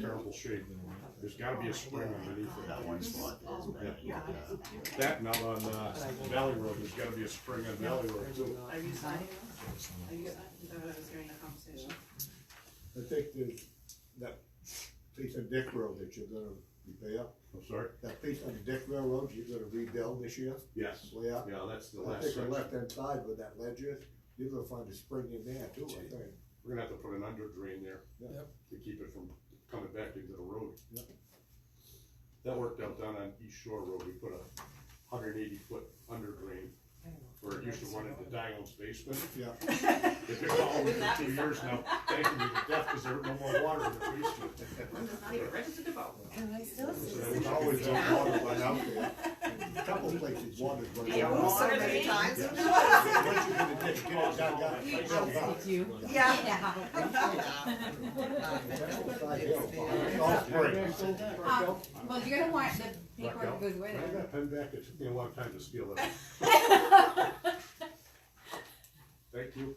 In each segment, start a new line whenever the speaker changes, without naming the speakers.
terrible shape. There's gotta be a spring underneath
That
it.
one spot that is bad.
Yeah.
Yeah.
That and out on, uh, Valley Road, there's gotta be a spring on Valley Road too.
Are you signing? Are you, I thought I was hearing a conversation.
I think there's that piece of Dick Road that you're gonna repair,
I'm sorry?
that piece on Dick Railroad you're gonna rebuild this year,
Yes.
way up.
Yeah, that's the
I
last
think the
section.
left hand side where that ledge is, you're gonna find a spring in there too, I think.
We're gonna have to put an under drain there.
Yep.
To keep it from coming back into the road.
Yep.
That worked out down on East Shore Road, we put a hundred eighty foot under drain, where it used to run into Dion's basement.
Yeah,
They've been following
Wouldn't that
for two
be
years now, thanking me to death, cause there was no more water in the basement.
I'm just not even registered to vote.
And I still see
Yeah,
the
there's always been water run out there, a couple places water run
Yeah,
out.
so many times.
Once you're gonna dig, get it dug up,
Yeah.
dug up.
you.
Yeah.
That's side hill, it's all spring.
Um, well, you're gonna want the paper
Blackout.
good
I
with it.
got a pen back, it took me a long time to steal that. Thank you.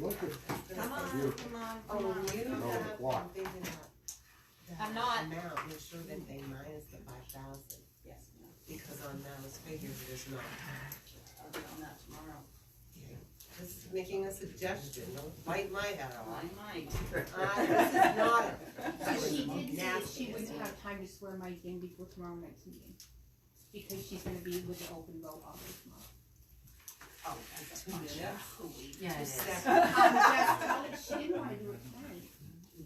Look at
Come on, come on, come on.
you don't have to
I'm not.
Amount, make sure that they minus the five thousand,
Yes, no,
because on those figures, there's not.
I'll get on that tomorrow.
Just making a suggestion, don't bite my head
I
off.
might.
I, this is not,
So she
that was
did say that she
nasty.
wouldn't have time to swear Mike in before tomorrow night's meeting. Because she's gonna be with the open vote all day tomorrow.
Oh, that's a bunch of-
Yeah,
Second.
Um, yes, she didn't wanna do it tonight.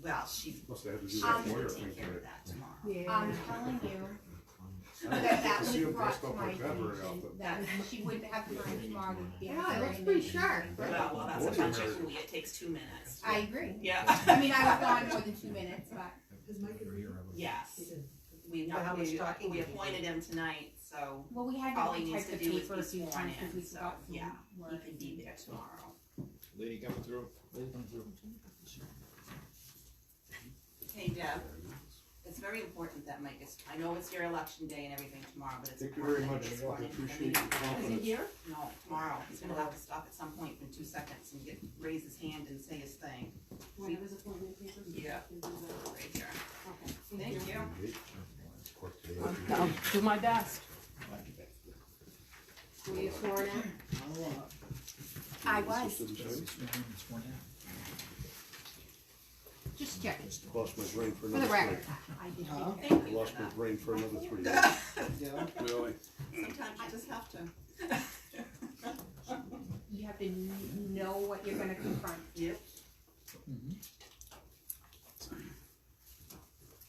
Well, she,
Must have had to do that
she
lawyer
will
thing
take care of
today.
that tomorrow.
I'm telling you
I
that that
see
was
him
brought
dressed
to
up
my
like that very
attention,
often.
that she wouldn't have time tomorrow to be.
Yeah, it looks pretty sharp.
Well, well, that's
What's
a bunch of
your-
hooey, it takes two minutes.
I agree.
Yeah.
I mean, I was gone more than two minutes, but.
Yes, we,
Well, how much
we,
talking
we
did you
appointed him tonight, so
Well, we had
All
to
he needs
retype
to
the
do is
paper a few
be sworn
times because
in,
we
so,
forgot some
yeah, he
words.
can be there tomorrow.
Lady coming through. Lady coming through.
Hey Deb, it's very important that Mike is, I know it's your election day and everything tomorrow, but it's
Thank you very
important
much,
that he's
I
sworn in. for the
appreciate your
meeting.
confidence.
No, tomorrow, he's gonna have to stop at some point in two seconds and get, raise his hand and say his thing. Yeah. Right here, thank you.
I'll do my best.
Were you sworn in? I was, just checking,
Lost my brain for
for the
another
record.
three.
I did.
Thank you
Lost
for
my
that.
brain for another three. days. Really?
Sometimes you just have to.
You have to kn- know what you're gonna confront
Yep.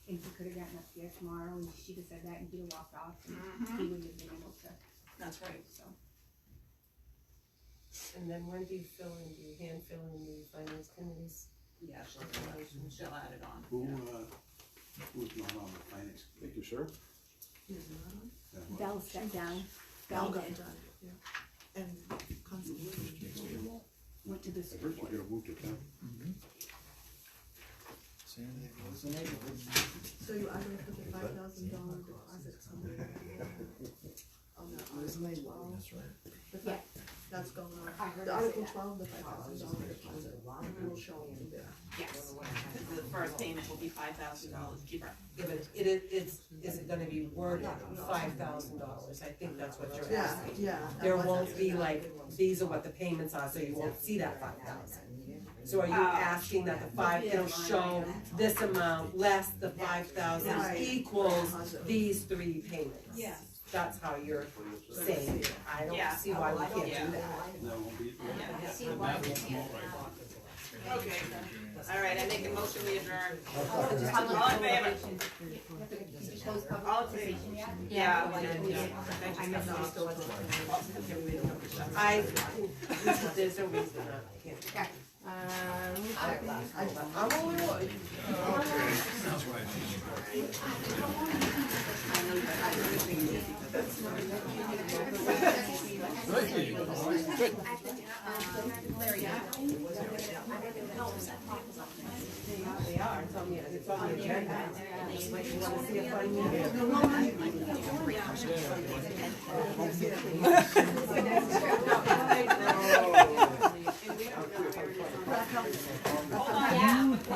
and he could have gotten up there tomorrow and she'd have said that and he'd have walked off. and He wouldn't have been able to,
That's right.
so.
and then when do you fill in, do you hand fill in the finance committees?
Yeah, she'll, do it. she'll add it on.
Who, uh, who's not on the finance?
Thank you, sir.
Bell stepped down, Bell did,
And constantly.
went to the
I heard you
school.
got a move to town.
So you either put the five thousand dollar deposit somewhere. oh, On that article twelve. The fact- That's going
I
on.
heard
The
her say
article
that.
twelve, the five thousand dollar deposit will show in there.
Yes, the first payment will be five thousand dollars, keep her.
Yeah, but it is, it's, is it gonna be worded five thousand dollars, I think that's what you're
Yeah,
asking.
yeah.
There won't be like, these are what the payments are, so you won't see that five thousand. So are you
Oh.
asking that the five, it'll show this amount less the five thousand
Right.
equals these three payments?
Yes.
That's how you're saying, it. I
Yeah.
don't see why we
Yeah.
can't do that.
That won't be.
Yeah.
See why they can't.
Okay, all right, I make a motion, we adjourn.
Public
All in favor?
relations. Did you close public
All in favor.
participation yet?
Yeah,
I didn't do that.
I missed it.
I, there's no reason I can't.
Okay.
I'm only one. They are, it's on the, it's on the agenda. Like, you wanna see a funny meeting?